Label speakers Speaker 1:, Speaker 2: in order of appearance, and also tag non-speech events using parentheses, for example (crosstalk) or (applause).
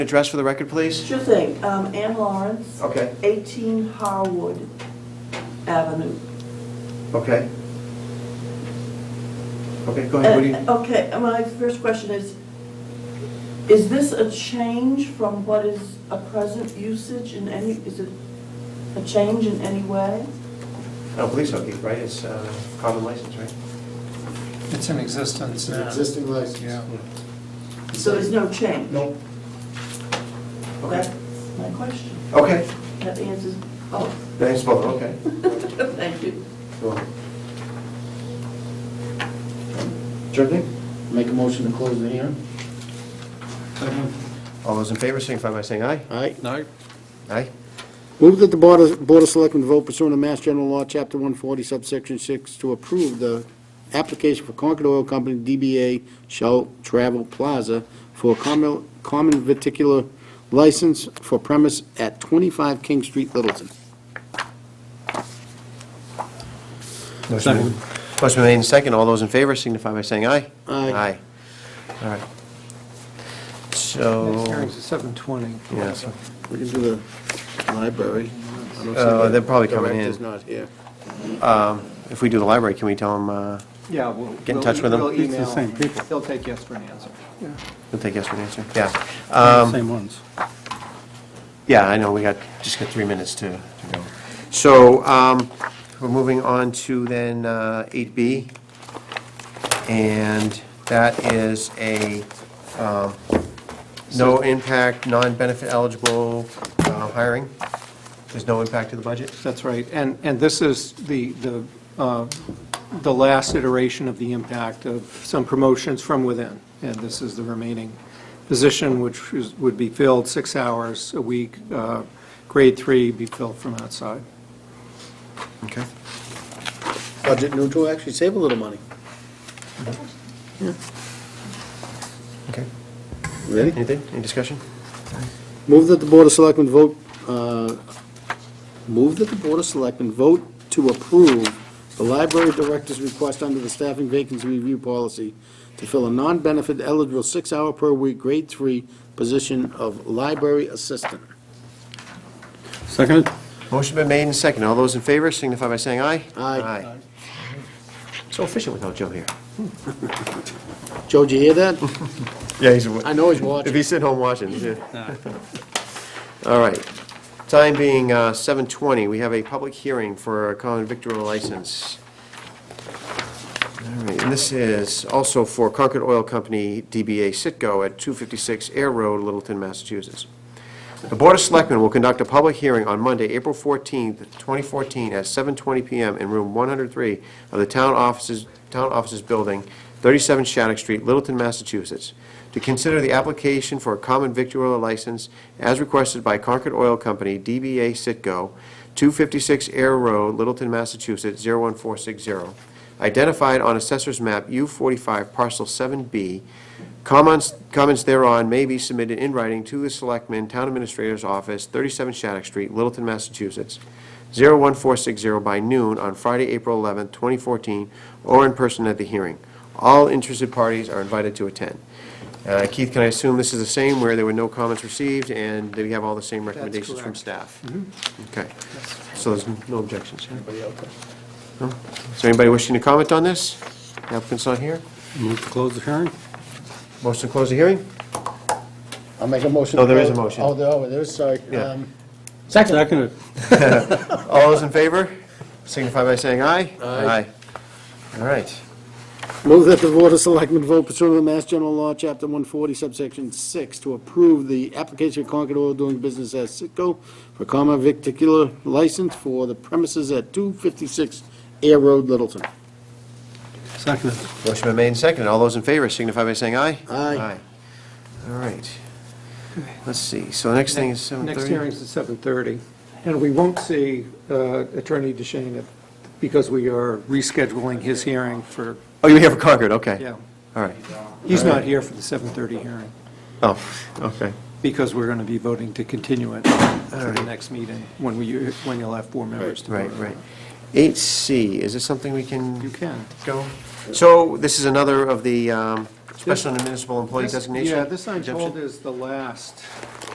Speaker 1: Address for the record, please?
Speaker 2: Sure thing. Um, Ann Lawrence,
Speaker 1: Okay,
Speaker 2: 18 Harwood Avenue.
Speaker 1: okay. Okay, go ahead, what do you,
Speaker 2: Uh, Okay, my first question is, is this a change from what is a present usage in any, is it a change in any way?
Speaker 1: I don't believe so, Keith, Oh, right? It's uh, common license, right?
Speaker 3: It's in existence
Speaker 4: It's an
Speaker 3: now.
Speaker 4: existing license.
Speaker 3: Yeah.
Speaker 2: So there's no change?
Speaker 4: Nope.
Speaker 2: That's
Speaker 1: Okay,
Speaker 2: my question.
Speaker 1: okay,
Speaker 2: That answers, oh,
Speaker 1: thanks, both, okay.
Speaker 2: (laughs) thank you.
Speaker 1: Cool. Sure thing.
Speaker 4: Make a motion to close the hearing?
Speaker 1: All those in favor signify by saying aye.
Speaker 4: Aye.
Speaker 3: No,
Speaker 1: Aye.
Speaker 4: Move that the Board of, Board of Selectmen vote pursuant to Mass General Law, Chapter 140, subsection 6, to approve the application for Concord Oil Company, DBA Shell Travel Plaza, for a common, common viticular license for premise at 25 King Street, Littleton.
Speaker 1: Motion made- motion made in second. All those in favor signify by saying aye.
Speaker 4: Aye.
Speaker 1: All right.
Speaker 3: next
Speaker 1: So,
Speaker 3: hearing's at seven twenty.
Speaker 1: Oh. yeah, so-
Speaker 4: We can do the library. I don't see
Speaker 1: Uh,
Speaker 4: the
Speaker 1: they're probably coming in.
Speaker 4: Director's not here.
Speaker 1: if we do the library, can we tell them, uh,
Speaker 5: Yeah, we'll.
Speaker 1: Get in touch with them.
Speaker 5: We'll
Speaker 3: It's the
Speaker 5: email.
Speaker 3: same people.
Speaker 5: They'll take yes for an answer.
Speaker 1: we'll take yes for an answer? Yeah. Um,
Speaker 3: Same ones.
Speaker 1: Yeah, I know, we got, just got three minutes to to go. So, um, we're moving on to then uh, 8B, and that is a um, no impact, non-benefit eligible uh, hiring. There's no impact to the budget?
Speaker 5: That's right. And, and this is the, the, uh, the last iteration of the impact of some promotions from within. And this is the remaining position, which is, would be filled six hours a week. uh, Grade three be filled from outside.
Speaker 1: Okay.
Speaker 4: Budget neutral, actually save a little money.
Speaker 1: Okay.
Speaker 4: Ready?
Speaker 1: Anything, any discussion?
Speaker 4: Move that the Board of Selectmen vote, uh, move that the Board of Selectmen vote to approve the library director's request under the staffing vacancy review policy to fill a non-benefit eligible six-hour per week grade three position of library assistant.
Speaker 3: Second?
Speaker 1: Motion been made and second. All those in favor signify by saying aye.
Speaker 4: Aye.
Speaker 1: So efficient without Joe here.
Speaker 4: Joe, did you
Speaker 1: (laughs)
Speaker 4: hear that?
Speaker 1: Yeah, he's.
Speaker 4: I know he's
Speaker 1: If
Speaker 4: watching.
Speaker 1: he's sitting home watching, yeah. All right. Time being uh, 7:20, we have a public hearing for a common victor license. All right, and this is also for Concord Oil Company, DBA Sitco, at 256 Air Road, Littleton, Massachusetts. The Board of Selectmen will conduct a public hearing on Monday, April 14th, 2014, at 7:20 PM in Room 103 of the Town Offices, Town Offices Building, 37 Shattuck Street, Littleton, Massachusetts, to consider the application for a common victualler license as requested by Concord Oil Company, DBA Sitco, 256 Air Road, Littleton, Massachusetts, 01460, identified on Assessor's Map U45 Parcel 7B, Comments, comments thereon may be submitted in writing to the Selectman, Town Administrator's Office, 37 Shattuck Street, Littleton, Massachusetts, 01460 by noon on Friday, April 11, 2014, or in person at the hearing. All interested parties are invited to attend. Uh, Keith, can I assume this is the same, where there were no comments received, and we have all the same recommendations from
Speaker 5: correct.
Speaker 1: staff? Okay, so there's no objections. Anybody out there? Is there anybody wishing to comment on this? Applicant's not here?
Speaker 3: Move to close the hearing?
Speaker 1: Motion to close the hearing?
Speaker 4: I'll make a motion.
Speaker 1: No, there is a motion.
Speaker 4: Oh, there, oh, there is, sorry.
Speaker 1: Yeah.
Speaker 4: Um,
Speaker 3: Second.
Speaker 1: All those in favor, signify by saying aye. Aye. All right.
Speaker 4: Move that the Board of Selectmen vote pursuant to the Mass General Law, Chapter 140, subsection 6, to approve the application of Concord Oil doing business as Sitco for common victicular license for the premises at 256 Air Road, Littleton.
Speaker 3: Second.
Speaker 1: Motion been made and seconded. All those in favor signify by saying aye.
Speaker 4: Aye.
Speaker 1: All right. Let's see. So the next thing is 7:30.
Speaker 5: Next hearing's at seven thirty, and we won't see uh, Attorney DeShane if- because we are rescheduling his hearing for,
Speaker 1: Oh, you're here for Concord, okay.
Speaker 5: yeah.
Speaker 1: All right.
Speaker 5: He's not here for the seven thirty hearing
Speaker 1: Oh, okay.
Speaker 5: because we're going to be voting to continue it to the next meeting when we, when you'll have four members to vote.
Speaker 1: Right,
Speaker 5: on
Speaker 1: right.
Speaker 5: it.
Speaker 1: 8C, is this something we can?
Speaker 5: You can.
Speaker 1: Go? So this is another of the um, special and municipal employee designation?
Speaker 5: Yeah, this I'm told
Speaker 1: exemption?
Speaker 5: is the last